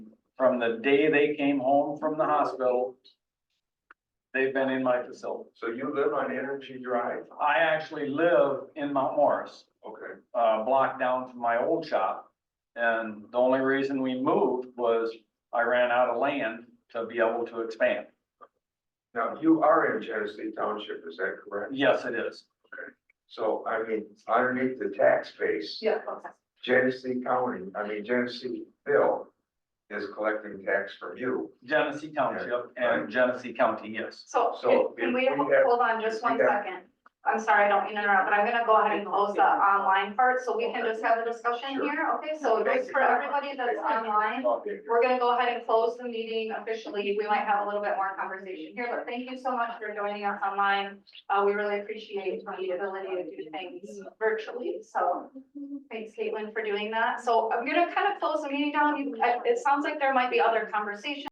from the day they came home from the hospital. They've been in my facility. So you live on Energy Drive? I actually live in Mount Morris, Okay, uh, block down from my old shop. And the only reason we moved was I ran out of land to be able to expand. now you are in Genesee Township, is that correct? Yes, it is. So I mean, underneath the tax base. Yeah. Genesee County, I mean Genesee Bill is collecting tax from you. Genesee Township and Genesee County, yes. So So can- can if we, we have- hold on just one we have- second. I'm sorry, I don't mean to interrupt, but I'm gonna go ahead and close the online part so we can just have a discussion Sure. here. Okay, so Thank just you. for everybody that's online, Okay. we're gonna go ahead and close the meeting officially. We might have a little bit more conversation here, but thank you so much for joining us online. Uh, we really appreciate the ability to do things virtually, so thanks Caitlin for doing that. So I'm gonna kind of close the meeting down. You- It it sounds like there might be other conversations.